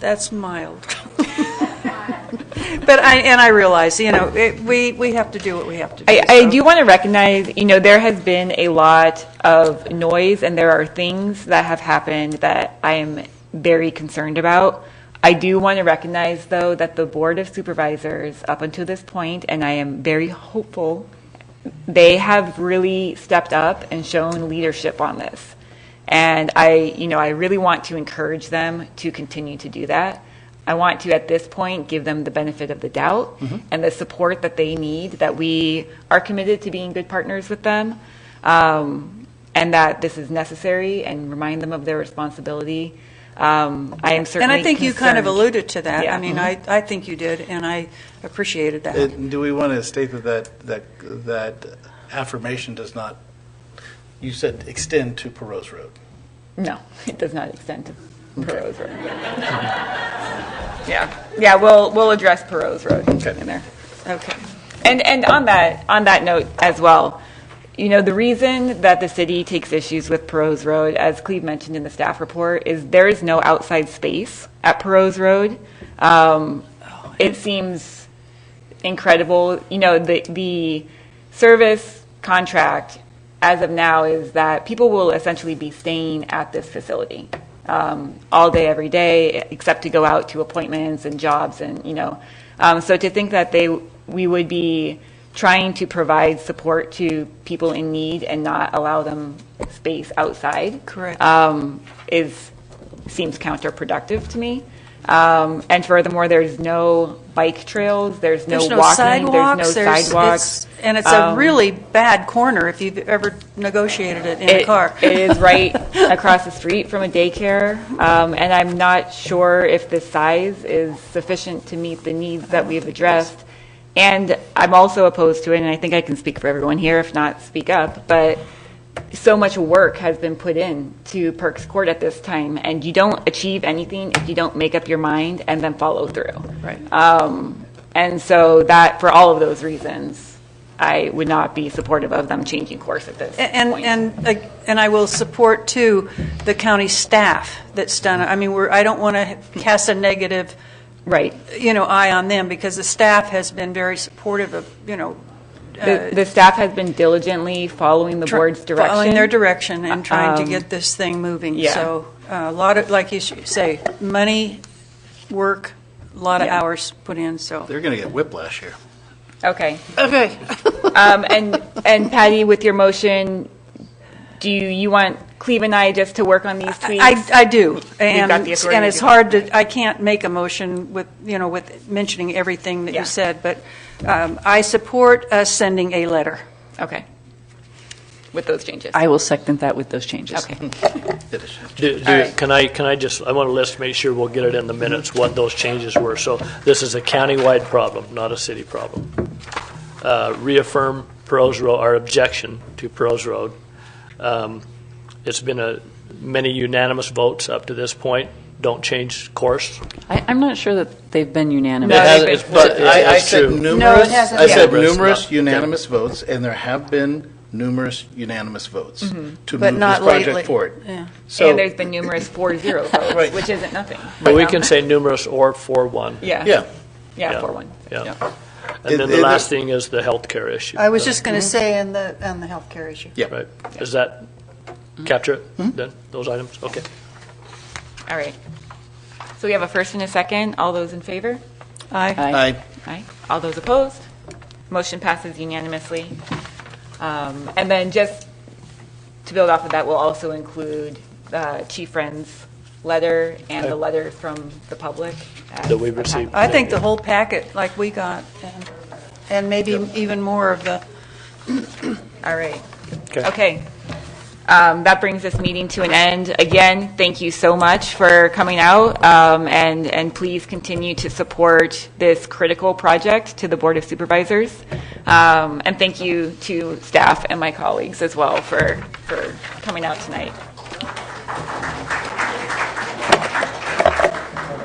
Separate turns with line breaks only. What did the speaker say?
That's mild. But I, and I realize, you know, it- we, we have to do what we have to do.
I, I
so-
do want to recognize, you know, there has been a lot of noise, and there are things that have happened that I am very concerned about. I do want to recognize, though, that the Board of Supervisors, up until this point, and I am very hopeful, they have really stepped up and shown leadership on this. And I, you know, I really want to encourage them to continue to do that. I want to, at this point, give them the benefit of the doubt
Mm-hmm.
and the support that they need, that we are committed to being good partners with them, um, and that this is necessary, and remind them of their responsibility. Um, I am certainly
And I think you kind of
concerned-
alluded to that. I
Yeah. Mm-hmm.
mean, I, I think you did, and I appreciated that.
And Do we want to state that that, that that affirmation does not, you said extend to Perot's Road?
No, it does not extend to Perot's Road. Yeah, yeah, we'll, we'll address Perot's Road
Okay.
in there.
Okay.
And, and on that, on that note as well, you know, the reason that the city takes issues with Perot's Road, as Cleve mentioned in the staff report, is there is no outside space at Perot's Road. Um, It seems incredible, you know, the, the service contract as of now is that people will essentially be staying at this facility um, all day, every day, except to go out to appointments and jobs and, you know. Um, so to think that they, we would be trying to provide support to people in need and not allow them space outside.
Correct.
Um, is, seems counterproductive to me. Um, and furthermore, there's no bike trails, there's no
There's
walking,
no sidewalks.
there's no
there's-
sidewalks.
it's- And it's a
Um,
really bad corner if you've ever negotiated it in a
it-
car.
It is right across the street from a daycare, um, and I'm not sure if the size is sufficient to meet the needs that we've addressed. And I'm also opposed to it, and I think I can speak for everyone here, if not, speak up, but so much work has been put in to Perks Court at this time, and you don't achieve anything if you don't make up your mind and then follow through.
Right.
Um, And so that, for all of those reasons, I would not be supportive of them changing course at this point.
And, and, uh, and I will support, too, the county staff that's done it. I mean, we're, I don't want to cast a negative,
Right.
you know, eye on them, because the staff has been very supportive of, you know,
The, the staff has been diligently following the
uh, tr-
board's direction.
Following their direction and trying to
Um,
get this thing moving.
yeah.
So uh, a lot of, like you sh- say, money, work, a lot of
Yeah.
hours put in, so.
They're going to get whiplash here.
Okay.
Okay.
Um, and, and Patty, with your motion, do you, you want Cleve and I just to work on these tweaks?
I, I do. And,
got the authority
and
to
it's
do
hard to, I can't make a motion with, you know, with mentioning everything that
Yeah.
you said, but um, I support us sending a letter.
Okay. With those changes?
I will second that with those changes.
Okay.
It is-
Do- do-
All right.
Can I, can I just, I want to list, make sure we'll get it in the minutes, what those changes were. So this is a countywide problem, not a city problem. Uh, Reaffirm Pearl's Road, our objection to Pearl's Road. Um, It's been a, many unanimous votes up to this point. Don't change course.
I, I'm not sure that they've been unanimous.
No,
It has-
it's-
it's- But
it's-
I, I
it's
said
true.
numerous,
hasn't
I said
yet.
numerous
Okay.
unanimous votes, and there have been numerous unanimous votes to
Mm-hmm. But
move this
not lately.
project forward.
Yeah.
So-
And there's been numerous four-zero votes,
Right.
which isn't nothing.
But we can say numerous or for one.
Yeah.
Yeah.
Yeah, four-one.
Yeah.
It-
And then the
it-
last thing is the healthcare issue.
I was just going to
Mm-hmm.
say on the, on the healthcare issue.
Yeah.
Right. Does that
Hmm?
capture it, then, those items? Okay.
All right. So we have a first and a second. All those in favor?
Aye.
I,
Aye. All those opposed? Motion passes unanimously. Um, And then just to build off of that, we'll also include uh, Chief Friend's letter and the
Okay.
letter from the public. as
That we've
a package.
received.
I think the whole packet, like we got, and- and maybe even more of the,
All right. Okay. Um, That brings this meeting to an end. Again, thank you so much for coming out, um, and, and please continue to support this critical project to the Board of Supervisors. Um, And thank you to staff and my colleagues as well for, for coming out tonight.